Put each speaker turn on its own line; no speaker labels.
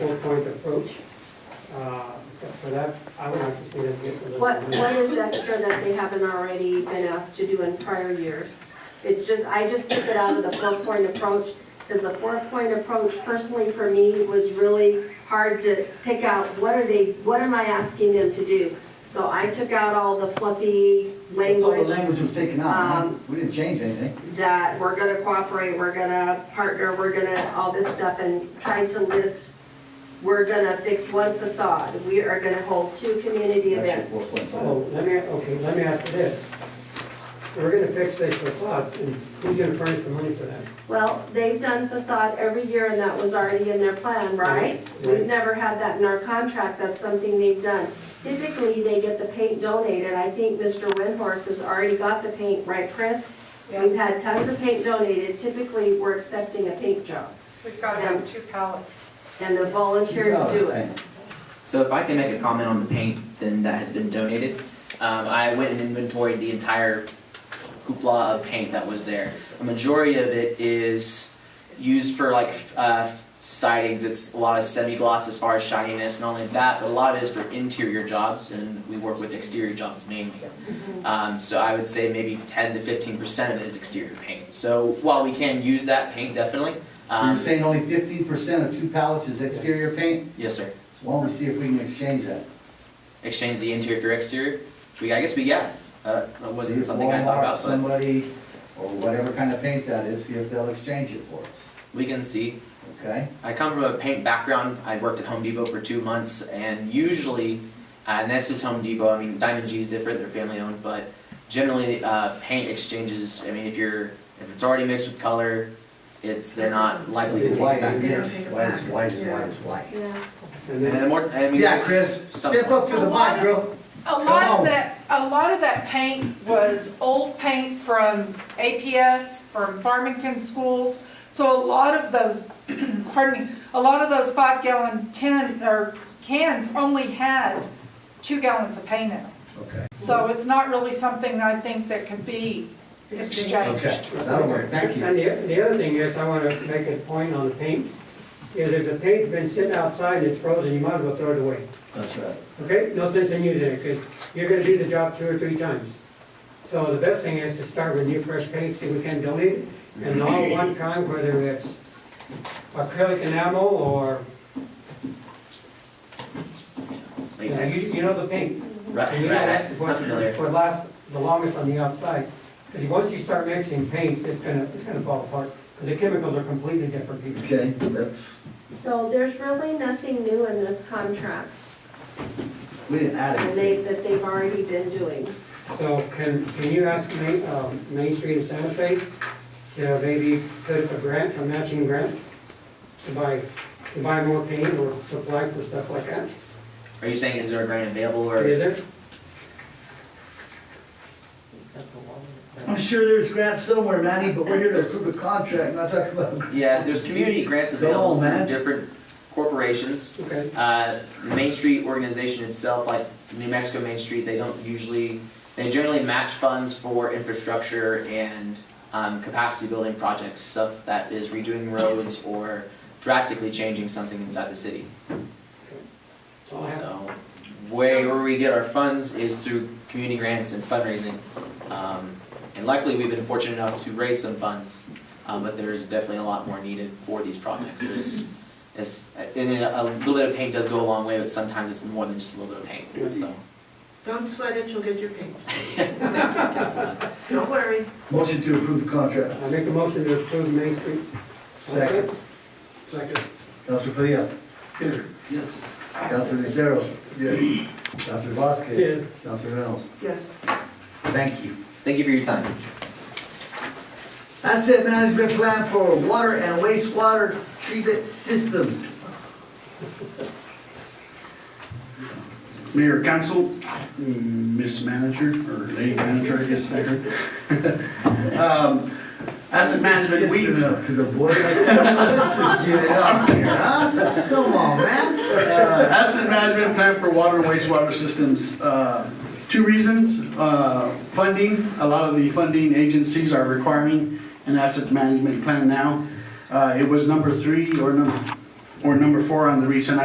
but I, Uh, I would like to see us get to those.
What,
numbers.
what is extra that they haven't already been asked to do in prior years? It's just, I just took it out of the four-point approach, because the four-point approach personally for me was really hard to pick out, what are they, what am I asking them to do? So I took out all the fluffy
That's all the
language
language was taken out,
Um,
right? we didn't change anything.
that we're gonna cooperate, we're gonna partner, we're gonna, all this stuff, and tried to list, we're gonna fix one facade, we are gonna hold two community
That's your
events.
four point five.
So, Oh, let me, okay, let me ask you this. We're gonna fix these facades, and who's gonna furnish the money for that?
Well, they've done facade every year and that was already in their plan, right? We've
Right.
never had that in our contract, that's something they've done. Typically, they get the paint donated, I think Mr. Windhorse has already got the paint, right, Chris? We've
Yes,
had tons of paint donated, typically, we're expecting a paint job,
we've got about two pallets.
and the volunteers
Oh,
do
okay.
it.
So if I can make a comment on the paint then that has been donated, um, I went and inventoried the entire hoopla of paint that was there. A majority of it is used for like f- uh, sidings. It's a lot of semi-gloss as far as shininess, not only that, but a lot of it is for interior jobs, and we work with exterior jobs mainly. Um, so I would say maybe 10 to 15 percent of it is exterior paint. So while we can use that paint definitely,
So you're
um,
saying only fifteen percent of two pallets is exterior paint?
yes, sir.
So why don't we see if we can exchange that?
exchange the interior for exterior. We, I guess we, yeah, uh, that wasn't something I thought
Walmart,
about, but
Somebody, or whatever kind of paint that is, see if they'll exchange it for us,
we can see.
okay?
I come from a paint background. I worked at Home Depot for two months, and usually, uh, and this is Home Depot. I mean, Diamond G is different; they're family owned, but generally, uh, paint exchanges. I mean, if you're if it's already mixed with color, it's they're not likely to
White,
take it back.
yes, white is white is white is white.
Yeah.
And
And
then,
then more, I mean,
Yeah,
there's
Chris,
some-
step up to the mic, girl.
A
Come
lot
on.
of that, a lot of that paint was old paint from APS, from Farmington schools. So a lot of those, pardon me, a lot of those five gallon tin, or cans only had two gallons of paint in them.
Okay,
So it's not really something I think that could be
okay,
exchanged.
that'll work, thank you.
and the, the other thing is, I wanna make a point on the paint, is if the paint's been sitting outside and it's frozen, you might as well throw it away.
That's right.
Okay, no sense in using it, because you're gonna do the job two or three times. So the best thing is to start with new fresh paint, see if we can donate it, and all one kind, whether it's acrylic enamel or, you know, you
latex.
you know the paint.
Right,
And you know
right,
what-
not familiar.
what Would last the longest on the outside, because once you start mixing paints, it's gonna, it's gonna fall apart, because the chemicals are completely different people.
Okay, that's,
So there's really nothing new in this contract
we didn't add
and they,
anything.
that they've already been doing.
So can, can you ask Main, um, Main Street and Santa Fe to maybe put up a grant, a matching grant? To buy, to buy more paint or supply for stuff like that?
Are you saying is there a grant available or?
Is there?
I'm sure there's grants somewhere, Manny, but we're here to approve a contract, not talk about.
Yeah, there's community grants
Go on,
available
man.
through different corporations.
Okay,
Uh, the Main Street organization itself, like New Mexico Main Street, they don't usually, they generally match funds for infrastructure and um, capacity building projects, stuff that is redoing roads or drastically changing something inside the city.
so I'll have-
So way where we get our funds is through community grants and fundraising. Um, and luckily, we've been fortunate enough to raise some funds, um, but there's definitely a lot more needed for these projects. There's, it's, and a, a little bit of paint does go a long way, but sometimes it's more than just a little bit of paint, so.
Don't sweat it, you'll get your paint.
that's what I-
Don't worry.
Motion to approve the contract.
I make a motion to approve Main Street.
Second.
Second.
Councilor Padilla.
Yes.
Councilor Lucero.
Yes.
Councilor Vasquez.
Yes.
Councilor Reynolds.
Yes.
Thank you.
Thank you for your time.
Asset management plan for water and wastewater treatment systems.
Mayor, council, mm, Miss Manager, or Lady Manager, I guess, I heard. Um, Asset management,
Yes,
we,
up to the board. Let's just get it up here, huh? Come on, man.
Uh, Asset management plan for water and wastewater systems. uh, Two reasons, uh, funding, a lot of the funding agencies are requiring an asset management plan now. Uh, It was number three or number, or number four on the recent